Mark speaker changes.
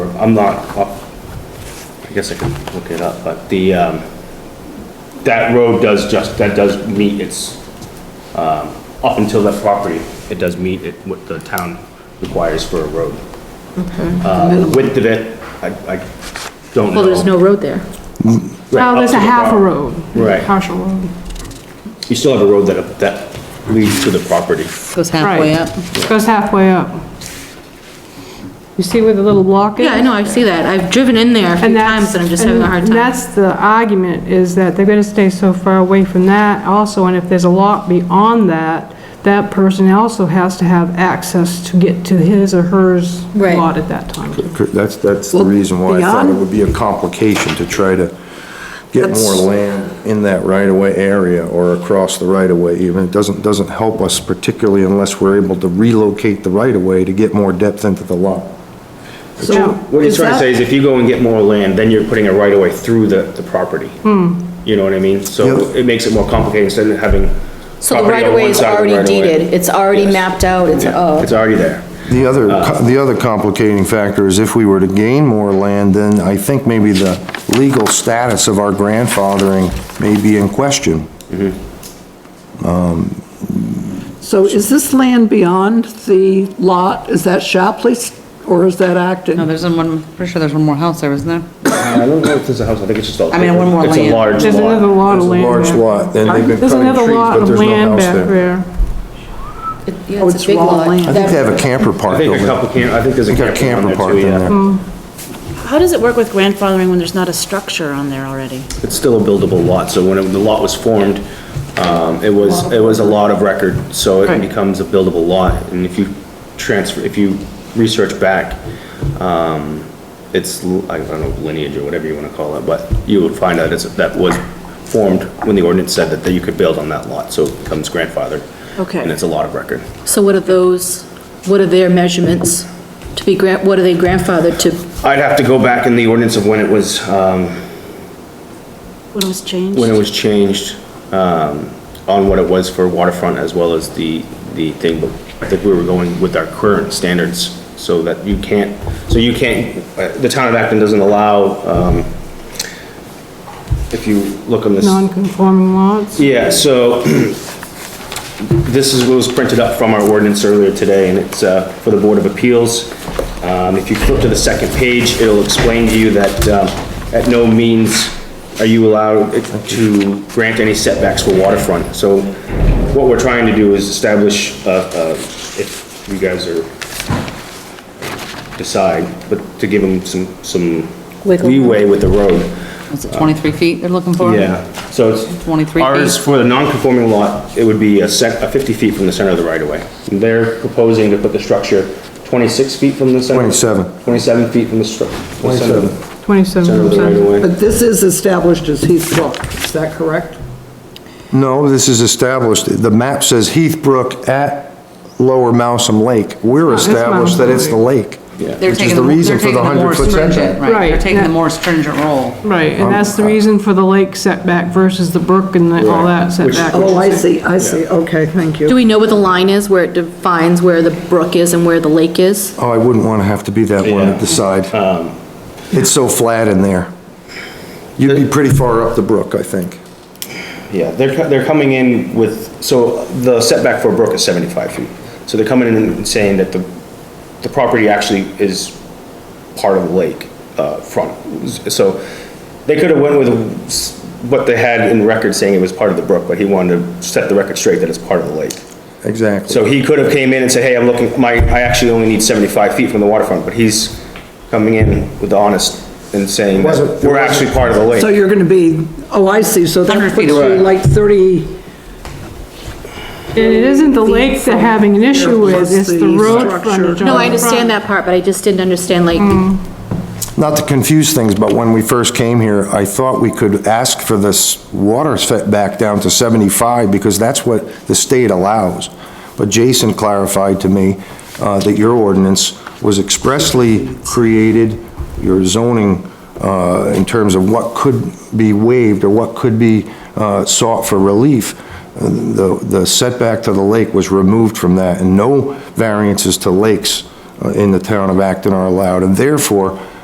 Speaker 1: I'm not, up- I guess I could look it up, but the, um, that road does just, that does meet its, um, up until that property, it does meet it, what the town requires for a road. Uh, width of it, I, I don't know.
Speaker 2: Well, there's no road there.
Speaker 1: Right,
Speaker 3: Well,
Speaker 1: up
Speaker 3: Oh, there's
Speaker 1: to
Speaker 3: a
Speaker 1: the
Speaker 3: half a
Speaker 1: property.
Speaker 3: road.
Speaker 1: Right.
Speaker 3: Partial road.
Speaker 1: You still have a road that, that leads to the property.
Speaker 4: Goes halfway
Speaker 3: Right.
Speaker 4: up.
Speaker 3: Goes halfway up. You see where the little block is?
Speaker 2: Yeah, I know, I see that. I've driven in there a few
Speaker 3: And that's-
Speaker 2: times and I'm just having a hard
Speaker 3: And
Speaker 2: time.
Speaker 3: that's the argument, is that they're gonna stay so far away from that also, and if there's a lot beyond that, that person also has to have access to get to his or hers
Speaker 2: Right.
Speaker 3: lot at that time.
Speaker 5: That's, that's the reason why I thought it would be a complication to try to get more land in that right-of-way area or across the right-of-way even. It doesn't, doesn't help us particularly unless we're able to relocate the right-of-way to get more depth into the lot.
Speaker 4: So
Speaker 1: What he's
Speaker 4: is
Speaker 1: trying to
Speaker 4: that-
Speaker 1: say is if you go and get more land, then you're putting a right of way through the, the property.
Speaker 4: Hmm.
Speaker 1: You know what I mean? So
Speaker 5: Yep.
Speaker 1: it makes it more complicated instead of having.
Speaker 4: So the
Speaker 1: property on
Speaker 4: right-of-way
Speaker 1: one
Speaker 4: is
Speaker 1: side of the
Speaker 4: already
Speaker 1: right-of-way.
Speaker 4: deeded, it's already
Speaker 1: Yes.
Speaker 4: mapped out, it's,
Speaker 1: Yeah,
Speaker 4: oh,
Speaker 1: It's already there.
Speaker 5: The other,
Speaker 1: Uh.
Speaker 5: the other complicating factor is if we were to gain more land, then I think maybe the legal status of our grandfathering may be in question.
Speaker 6: So is this land beyond the lot? Is that Shapley's or is that
Speaker 4: no,
Speaker 6: Acton?
Speaker 4: there's one, I'm pretty sure there's one more house there, isn't there?
Speaker 1: I don't know if there's a house, I think it's just a.
Speaker 4: I mean, one more
Speaker 1: It's a
Speaker 4: land.
Speaker 1: large
Speaker 3: There's another
Speaker 1: lot.
Speaker 3: lot of
Speaker 5: There's a
Speaker 3: land
Speaker 5: large
Speaker 3: back-
Speaker 5: lot, and they've been
Speaker 3: There's
Speaker 5: cutting
Speaker 3: another
Speaker 5: trees,
Speaker 3: lot
Speaker 5: but
Speaker 3: of
Speaker 5: there's no
Speaker 3: land
Speaker 5: house
Speaker 3: back
Speaker 5: there.
Speaker 4: It- Yeah,
Speaker 6: Oh,
Speaker 4: it's a
Speaker 6: it's
Speaker 4: big
Speaker 6: raw
Speaker 4: lot.
Speaker 6: land.
Speaker 5: I
Speaker 4: That-
Speaker 5: think they have a camper park
Speaker 1: I
Speaker 5: over
Speaker 1: think a
Speaker 5: there.
Speaker 1: couple can, I think there's a
Speaker 5: I think a
Speaker 1: camper
Speaker 5: camper
Speaker 1: on
Speaker 5: park
Speaker 1: there too,
Speaker 5: in
Speaker 4: Hmm.
Speaker 1: yeah.
Speaker 5: there.
Speaker 7: How does it work with grandfathering when there's not a structure on there already?
Speaker 1: It's still a buildable lot, so when it- the lot was formed, um, it was, it was a lot of record, so it
Speaker 3: Right.
Speaker 1: becomes a buildable lot. And if you transfer, if you research back, um, it's, l- I don't know, lineage or whatever you wanna call it, but you would find out it's, that was formed when the ordinance said that, that you could build on that lot, so it becomes grandfathered.
Speaker 7: Okay.
Speaker 1: And it's a lot of record.
Speaker 2: So what are those, what are their measurements? To be gran, what are they grandfathered to?
Speaker 1: I'd have to go back in the ordinance of when it was, um,
Speaker 7: When it was changed?
Speaker 1: when it was changed, um, on what it was for waterfront as well as the, the thing, but I think we were going with our current standards, so that you can't, so you can't, uh, the town of Acton doesn't allow, um, if you look on this.
Speaker 3: non-conforming lots.
Speaker 1: Yeah, so this is what was printed up from our ordinance earlier today, and it's uh, for the Board of Appeals. Um, If you flip to the second page, it'll explain to you that um, at no means are you allowed to grant any setbacks for waterfront. So what we're trying to do is establish, uh, uh, if you guys are, decide, but to give them some, some
Speaker 4: Wiggle room.
Speaker 1: leeway with the road.
Speaker 4: Was it 23 feet they're looking for?
Speaker 1: Yeah, so it's.
Speaker 4: 23
Speaker 1: Ours,
Speaker 4: feet.
Speaker 1: for the non-conforming lot, it would be a sec, a 50 feet from the center of the right-of-way. They're proposing to put the structure 26 feet from the center.
Speaker 5: 27.
Speaker 1: 27 feet from the stru, the center of the-
Speaker 3: 27.
Speaker 1: center of the right-of-way.
Speaker 6: But this is established as Heath Brook, is that correct?
Speaker 5: No, this is established, the map says Heath Brook at Lower Mousom Lake. We're
Speaker 3: it's
Speaker 5: established that
Speaker 3: Mousam
Speaker 5: it's the lake.
Speaker 4: Oh, They're
Speaker 5: Which is
Speaker 4: taking,
Speaker 5: the
Speaker 4: the-
Speaker 5: reason
Speaker 4: they're
Speaker 5: for the
Speaker 4: taking the more
Speaker 5: 100-foot
Speaker 4: stringent,
Speaker 5: setback.
Speaker 4: right, they're
Speaker 3: Right,
Speaker 4: taking the
Speaker 3: that-
Speaker 4: more stringent role.
Speaker 3: Right, and that's the
Speaker 5: Um,
Speaker 3: reason for the lake setback versus the brook and the- all that
Speaker 1: Which-
Speaker 3: setback.
Speaker 6: Oh, I see, I see, okay, thank
Speaker 2: Do
Speaker 6: you.
Speaker 2: we know where the line is, where it defines where the brook is and where the lake is?
Speaker 5: Oh, I wouldn't want to have to be that one
Speaker 1: Yeah.
Speaker 5: at the side. It's so flat in there. You'd be pretty far up the brook, I think.
Speaker 1: Yeah, they're, co- they're coming in with, so the setback for a brook is 75 feet. So they're coming in and saying that the, the property actually is part of the lake, uh, front. So they could have went with s- what they had in record saying it was part of the brook, but he wanted to set the record straight that it's part of the lake. So
Speaker 5: Exactly.
Speaker 1: he could have came in and said, hey, I'm looking, my, I actually only need 75 feet from the waterfront, but he's coming in with the honest and saying
Speaker 5: It wasn't-
Speaker 1: that
Speaker 5: it
Speaker 1: we're
Speaker 5: wasn't-
Speaker 1: actually part of the lake.
Speaker 6: So you're gonna be, oh, I see, so that
Speaker 4: 100
Speaker 6: puts
Speaker 4: feet
Speaker 6: you
Speaker 1: away.
Speaker 6: like 30,
Speaker 3: And it isn't the lake they're having an issue with, it's the road frontage. on
Speaker 2: No, I
Speaker 3: the front.
Speaker 2: understand that part, but I just didn't understand like,
Speaker 5: Not to confuse things, but when we first came here, I thought we could ask for this water setback down to 75 because that's what the state allows. But Jason clarified to me uh, that your ordinance was expressly created, your zoning, uh, in terms of what could be waived or what could be uh, sought for relief, the the setback to the lake was removed from that, and no variances to lakes uh, in the town of Acton are allowed. And therefore,